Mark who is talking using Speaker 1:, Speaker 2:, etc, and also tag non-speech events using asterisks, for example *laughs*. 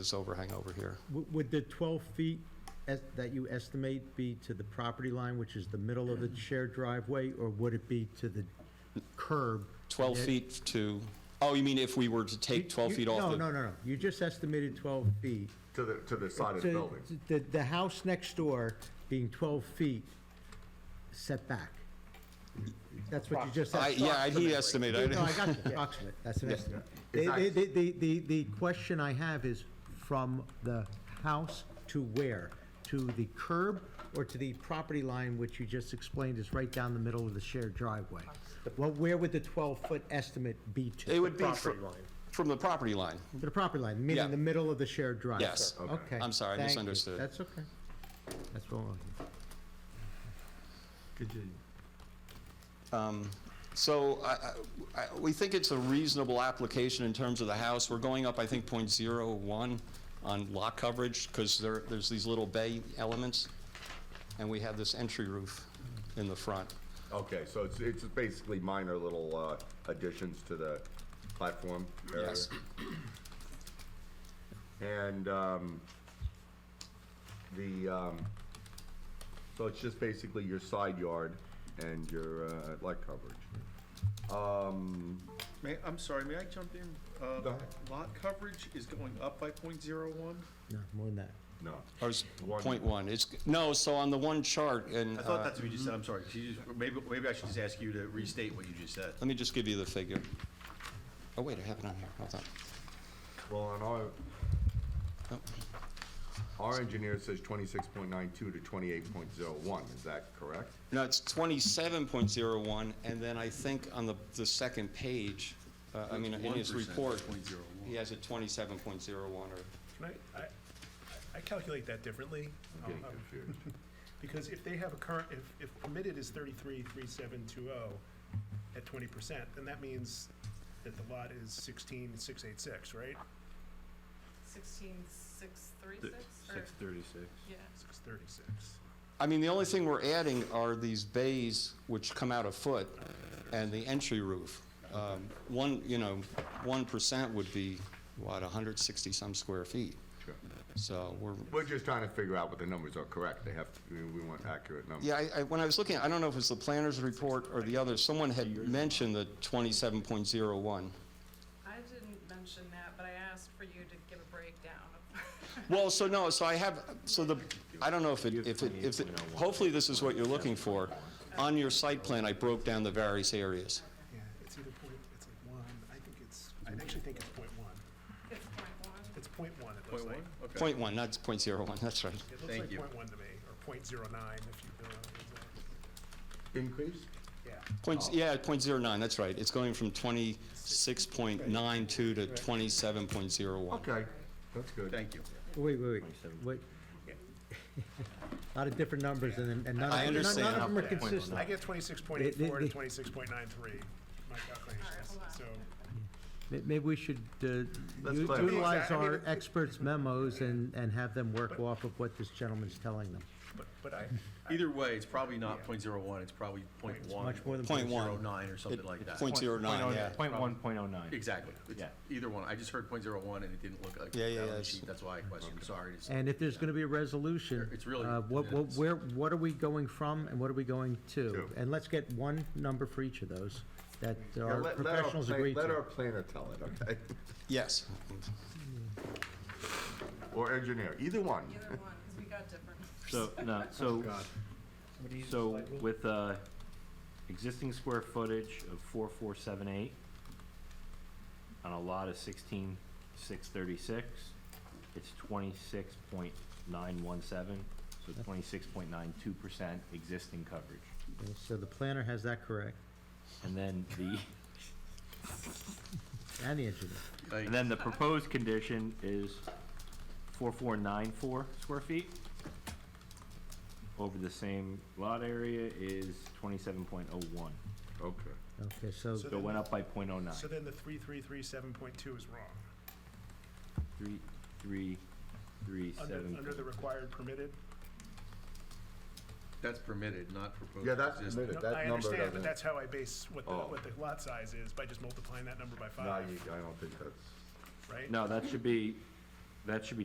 Speaker 1: this overhang over here.
Speaker 2: W- Would the 12 feet es- that you estimate be to the property line, which is the middle of the shared driveway, or would it be to the curb?
Speaker 1: 12
Speaker 2: Yeah.
Speaker 1: feet to, oh, you mean if we were to
Speaker 2: You-
Speaker 1: take 12
Speaker 2: you-
Speaker 1: feet off
Speaker 2: No,
Speaker 1: the?
Speaker 2: no, no, no. You just estimated 12 feet.
Speaker 3: To the, to the side of the
Speaker 2: So
Speaker 3: building.
Speaker 2: The, the house next door being 12 feet setback. That's what you just
Speaker 1: I-
Speaker 2: said.
Speaker 1: Yeah, he estimated.
Speaker 2: No,
Speaker 1: *laughs*
Speaker 2: I got you, approximate, that's an estimate.
Speaker 3: It's
Speaker 2: The,
Speaker 3: not-
Speaker 2: the, the, the, the question I have is from the house to where? To the curb or to the property line, which you just explained is right down the middle of the shared driveway? Well, where would the 12-foot estimate be to?
Speaker 1: It would be
Speaker 4: property
Speaker 1: fr-
Speaker 4: line.
Speaker 1: from the property line.
Speaker 2: To the property line,
Speaker 1: Yeah.
Speaker 2: meaning the middle of the shared driveway?
Speaker 1: Yes.
Speaker 3: Okay.
Speaker 2: Okay.
Speaker 1: I'm sorry, I
Speaker 2: thank you.
Speaker 1: misunderstood.
Speaker 2: That's okay. That's what I'm...
Speaker 1: Um, So I- I- I- we think it's a reasonable application in terms of the house. We're going up, I think, .01 on lot coverage because there, there's these little bay elements, and we have this entry roof in the front.
Speaker 3: Okay, so it's, it's basically minor little uh, additions to the platform area?
Speaker 1: Yes.
Speaker 3: And um, the, um, so it's just basically your side yard and your uh, light coverage. Um,
Speaker 4: May, I'm sorry, may I jump in? Uh,
Speaker 3: Go ahead.
Speaker 4: Lot coverage is going up by point zero one?
Speaker 2: No, more than that.
Speaker 3: No.
Speaker 1: Or is
Speaker 3: One.
Speaker 1: .1? It's, no, so on the one chart, and
Speaker 5: I
Speaker 1: uh,
Speaker 5: thought that's what you just said, I'm sorry. She just- Maybe, maybe I should just ask you to restate what you just said.
Speaker 1: let me just give you the figure. Oh, wait, I have it on here, hold on.
Speaker 3: Well, on our,
Speaker 1: Oh,
Speaker 3: our engineer says 26.92 to 28.01, is that correct?
Speaker 1: No, it's 27.01, and then I think on the, the second page, uh, I mean, in his
Speaker 5: 1%,
Speaker 1: report,
Speaker 5: 0.01.
Speaker 1: he has it 27.01 or
Speaker 6: Can I, I, I calculate that differently.
Speaker 3: I'm getting
Speaker 6: Um,
Speaker 3: confused.
Speaker 6: Because if they have a current, if, if permitted is thirty-three, three, seven, two, oh, at twenty percent, then that means that the lot is sixteen, six, eight, six, right?
Speaker 7: Sixteen, six, three, six, or,
Speaker 5: thirty-six.
Speaker 7: yeah.
Speaker 6: Six thirty-six.
Speaker 1: I mean, the only thing we're adding are these bays which come out a foot and the entry roof. Um, One, you know, one percent would be, what, hundred sixty-some square feet?
Speaker 3: Sure.
Speaker 1: So we're,
Speaker 3: We're just trying to figure out what the numbers are correct. They have, we we want accurate numbers.
Speaker 1: yeah, I, I, when I was looking, I don't know if it was the planner's report or the other, someone had mentioned the twenty-seven point zero one.
Speaker 7: I didn't mention that, but I asked for you to give a breakdown of. *laughs*
Speaker 1: Well, so no, so I have, so the, I don't know if it, if it, if, it- hopefully this is what you're looking for. On your site plan, I broke down the various areas.
Speaker 6: Yeah, it's either point, it's like one, I think it's, I actually think it's point one.
Speaker 7: It's point
Speaker 6: It's
Speaker 7: one.
Speaker 6: point one, it looks
Speaker 4: Point
Speaker 6: like.
Speaker 4: one? Okay.
Speaker 1: Point one, not point zero one, *laughs* that's right.
Speaker 6: It looks
Speaker 5: Thank
Speaker 6: like
Speaker 5: you.
Speaker 6: point one to me, or point zero nine if you really,
Speaker 3: Increase?
Speaker 6: yeah.
Speaker 1: Points, yeah, point zero nine, that's right. It's going from twenty-six point nine two to twenty-seven point zero one.
Speaker 3: Okay, that's good.
Speaker 5: Thank you.
Speaker 2: Wait, wait, wait, wait. A *laughs* Lot of different numbers and, and none of,
Speaker 1: I
Speaker 2: none- none
Speaker 1: understand.
Speaker 2: of them are consistent.
Speaker 6: I get twenty-six point eight four to twenty-six point nine three, my calculations,
Speaker 7: hold on.
Speaker 6: so.
Speaker 2: May- Maybe we should uh,
Speaker 3: Let's
Speaker 2: u-
Speaker 3: clarify.
Speaker 2: utilize
Speaker 6: I mean,
Speaker 2: our
Speaker 6: it-
Speaker 2: experts' memos and, and have them work off of what this gentleman's telling them.
Speaker 6: But, but I,
Speaker 5: Either way, it's probably not point zero one, it's probably point one.
Speaker 2: much more than
Speaker 1: Point one.
Speaker 5: Zero nine or something like that.
Speaker 1: Point zero nine, yeah.
Speaker 8: Point one, point oh nine.
Speaker 5: Exactly. It's
Speaker 8: Yeah.
Speaker 5: Either one. I just heard point zero one and it didn't look like.
Speaker 1: Yeah, yeah,
Speaker 5: that on the
Speaker 1: yeah,
Speaker 5: sheet.
Speaker 1: it's-
Speaker 5: That's why I questioned. Sorry. it's-
Speaker 2: And if there's gonna be a resolution.
Speaker 5: It's really-
Speaker 2: uh, What, what,
Speaker 5: it's-
Speaker 2: where, what are we going from and what are we going to?
Speaker 3: To.
Speaker 2: And let's get one number for each of those that
Speaker 3: Yeah,
Speaker 2: our
Speaker 3: let- let
Speaker 2: professionals
Speaker 3: plan-
Speaker 2: agree to.
Speaker 3: Let our planner tell it, okay? *laughs*
Speaker 1: Yes.
Speaker 3: Or engineer, either one.
Speaker 7: Either one, because we got different.
Speaker 8: So, no, so, so with, uh, existing square footage of four, four, seven, eight, on a lot of sixteen, six, thirty-six, it's twenty-six point nine one seven, so twenty-six point nine two percent existing coverage.
Speaker 2: So the planner has that correct
Speaker 8: And then the,
Speaker 2: and the engineer.
Speaker 5: Like,
Speaker 8: and then the proposed condition is four, four, nine, four square feet. Over the same lot area is twenty-seven point oh one.
Speaker 3: Okay.
Speaker 2: Okay, so
Speaker 6: So
Speaker 8: So it
Speaker 6: then-
Speaker 8: went up by point oh nine.
Speaker 6: so then the three, three, three, seven point two is wrong.
Speaker 8: Three, three, three,
Speaker 6: Under,
Speaker 8: seven.
Speaker 6: under the required permitted?
Speaker 5: That's permitted, not proposed.
Speaker 3: Yeah, that's
Speaker 5: existing.
Speaker 3: permitted.
Speaker 6: No,
Speaker 3: That
Speaker 6: I
Speaker 3: number
Speaker 6: understand,
Speaker 3: doesn't-
Speaker 6: but that's how I base what the,
Speaker 3: Oh.
Speaker 6: what the lot size is, by just multiplying that number by
Speaker 3: No,
Speaker 6: five,
Speaker 3: you, I don't think that's,
Speaker 6: right?
Speaker 8: No, that should be that should be